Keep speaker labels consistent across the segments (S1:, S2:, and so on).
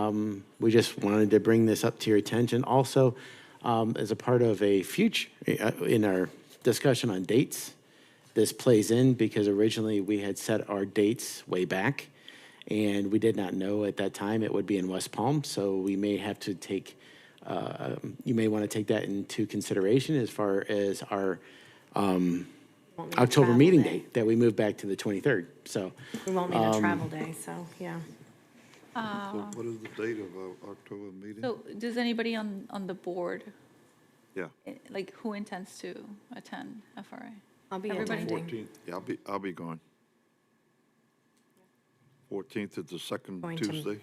S1: Um, We just wanted to bring this up to your attention. Also, um, as a part of a future, uh, in our discussion on dates, this plays in because originally we had set our dates way back, and we did not know at that time it would be in West Palm, so we may have to take, uh, um, you may want to take that into consideration as far as our um,
S2: Won't need a
S1: October
S2: travel
S1: meeting
S2: day.
S1: date, Um, that we move back to the 23rd, so.
S2: We won't need a travel day, so, yeah. Um,
S3: What what is the date of our October meeting?
S4: So does anybody on, on the board,
S3: Yeah,
S4: eh, like who intends to attend FRA?
S2: I'll be
S4: Everybody do.
S2: attending.
S3: yeah, I'll be, I'll be gone. 14th is the second
S2: Going to-
S3: Tuesday.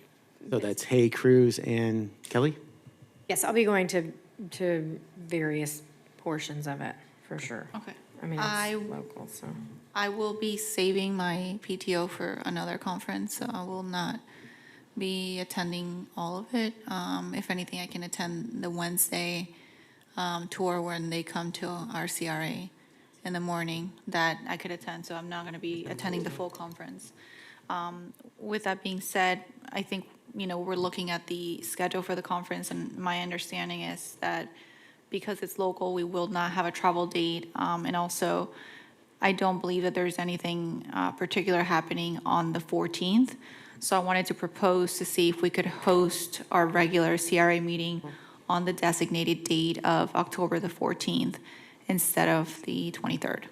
S1: So that's Hay, Cruz, and Kelly?
S2: Yes, I'll be going to, to various portions of it, for sure.
S4: Okay.
S2: I mean,
S4: I-
S2: it's local, so.
S4: I will be saving my PTO for another conference, so I will not be attending all of it. Um, if anything, I can attend the Wednesday, um, tour when they come to our CRA in the morning that I could attend, so I'm not gonna be attending the full conference. Um, with that being said, I think, you know, we're looking at the schedule for the conference, and my understanding is that because it's local, we will not have a travel date, um, and also, I don't believe that there's anything uh, particular happening on the 14th. So I wanted to propose to see if we could host our regular CRA meeting on the designated date of October the 14th instead of the 23rd.
S5: I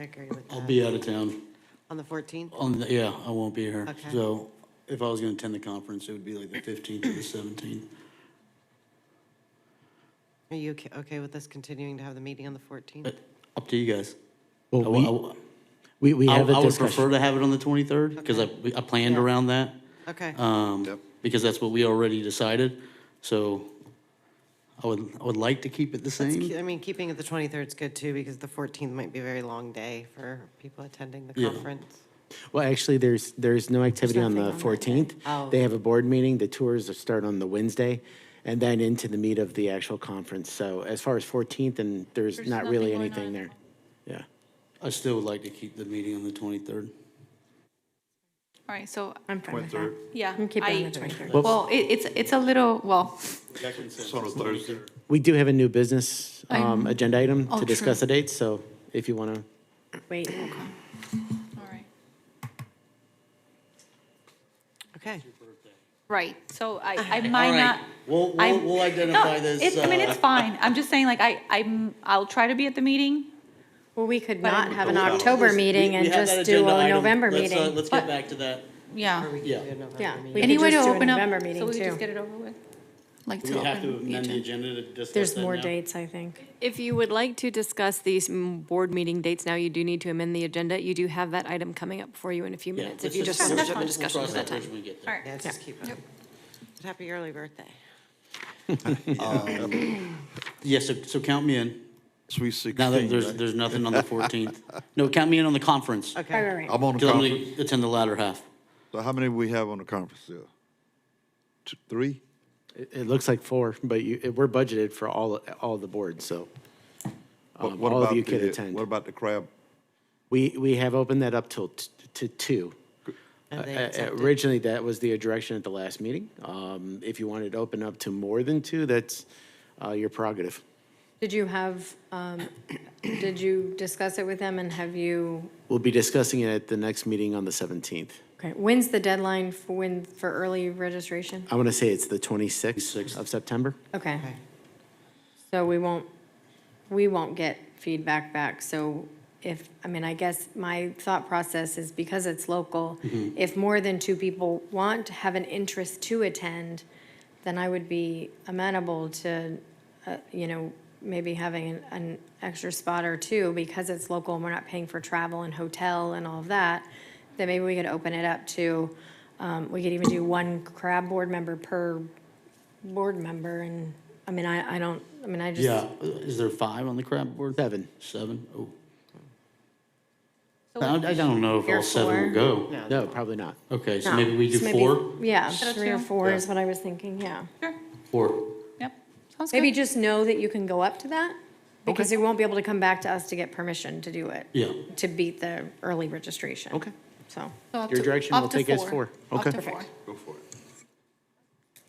S5: agree with
S6: I'll
S5: that.
S6: be out of town.
S5: On the 14th?
S6: On, the- yeah, I won't be here.
S5: Okay.
S6: So if I was going to attend the conference, it would be like the 15th or the 17th.
S5: Are you okay- okay with us continuing to have the meeting on the 14th?
S6: But up to you guys. I
S1: Well, we-
S6: w-
S1: We, we
S6: I
S1: have
S6: w- I
S1: a
S6: would prefer
S1: discussion.
S6: to have it on the 23rd because I, I planned
S5: Yeah.
S6: around that.
S5: Okay.
S6: um,
S3: Yep.
S6: Because that's what we already decided. So I would, I would like to keep it the
S5: It's
S6: same.
S5: ke- I mean, keeping it the 23rd is good too, because the 14th might be a very long day for people attending the
S6: Yeah.
S5: conference.
S1: Well, actually, there's, there's no activity on the
S2: nothing on that day.
S1: 14th.
S5: Oh.
S1: They have a board meeting, the tours start on the Wednesday, and then into the meat of the actual conference. So as far as 14th, and there's
S4: There's
S1: not really
S4: nothing going
S1: anything
S4: on.
S1: there. Yeah.
S6: I still would like to keep the meeting on the 23rd.
S4: All right, so,
S2: I'm fine with that.
S3: 23rd,
S4: yeah.
S2: I'm keeping it on the
S4: I-
S2: 23rd.
S4: Well, it- it's, it's a little, well,
S3: it's on a Thursday.
S1: We do have a new business um,
S4: I'm-
S1: agenda item
S4: Oh,
S1: to discuss the
S4: true.
S1: dates, so if you want to,
S2: Wait,
S4: all right.
S5: Okay.
S4: Right, so I, I might not.
S6: We'll,
S4: I-
S6: we'll, we'll identify
S4: No,
S6: this.
S4: it- I mean,
S6: uh,
S4: it's fine. I'm just saying, like, I, I'm, I'll try to be at the meeting.
S2: well, we could
S4: But I-
S2: not have an
S6: Well,
S2: October
S6: listen, we-
S2: meeting
S6: we
S2: and
S6: have that
S2: just do
S6: agenda
S2: a
S6: item.
S2: November
S6: Let's, uh,
S2: meeting.
S6: Let's get back to that.
S4: Yeah.
S5: Or we could
S6: Yeah.
S5: do another
S2: Yeah,
S5: meeting.
S2: we could
S4: Any way to
S2: just do a
S4: open up-
S2: November meeting
S4: So we just get
S2: too.
S4: it over with? Like
S6: Do we
S4: to
S6: have to
S4: open the
S6: amend the
S4: agenda?
S6: agenda to discuss
S2: There's
S6: that
S2: more
S6: now?
S2: dates, I think.
S7: If you would like to discuss these mm, board meeting dates now, you do need to amend the agenda. You do have that item coming up for you in a few
S6: Yeah,
S7: minutes, if
S6: let's
S7: you just want to
S6: let's-
S7: jump in
S6: we'll
S7: discussion
S6: cross
S7: at that time.
S6: bridge when we get there.
S4: All right,
S5: Yeah, just keep it. But Happy early birthday.
S6: Yeah, so, so count me in.
S3: Sweet
S6: Now that
S3: 16,
S6: there's,
S3: right?
S6: there's nothing on the 14th. No, count me in on the conference.
S5: Okay.
S2: Right, right, right.
S3: I'm on the
S6: Because I'm
S3: conference.
S6: going to attend the latter half.
S3: So how many we have on the conference there? Two, three?
S1: it it looks like four, but you, it- we're budgeted for all, all the boards, so
S3: What-
S1: um,
S3: what
S1: all of
S3: about
S1: you could
S3: the-
S1: attend.
S3: What about the crab?
S1: We, we have opened that up till, t- to two.
S5: And they
S1: Uh, uh,
S5: accepted.
S1: Originally, that was the direction at the last meeting. Um, If you wanted to open up to more than two, that's uh, your prerogative.
S2: Did you have, um, did you discuss it with them and have you,
S1: We'll be discussing it at the next meeting on the 17th.
S2: okay, when's the deadline for when, for early registration?
S1: I want to say it's the 26th of September.
S2: Okay.
S5: Okay.
S2: So we won't, we won't get feedback back, so if, I mean, I guess my thought process is because it's local, if more than two people want, have an interest to attend, then I would be amenable to, uh, you know, maybe having an, an extra spot or two, because it's local and we're not paying for travel and hotel and all of that, then maybe we could open it up to, um, we could even do one crab board member per board member, and, I mean, I, I don't, I mean, I just.
S6: Yeah, uh, is there five on the crab board?
S1: Seven.
S6: Seven? Oh. I I don't know if
S2: Here
S6: all seven
S2: four?
S6: will go.
S1: No, probably not.
S6: Okay, so
S2: No,
S6: maybe we do
S2: so
S6: four?
S2: Yeah,
S4: Instead of
S2: three or
S4: two?
S2: four is
S6: Yeah.
S2: what I was thinking, yeah.
S4: sure,
S6: Four.
S4: yep, sounds
S2: Maybe
S4: good.
S2: just know that you can go up to that, because you won't be able to come back to us to get permission to do it.
S6: Yeah.
S2: To beat the early registration.
S1: Okay.
S2: So,
S4: So up
S1: Your
S4: to-
S1: direction
S4: up
S1: will
S4: to
S1: take us four.
S4: Up
S1: Okay.
S4: to four.
S3: Go for it.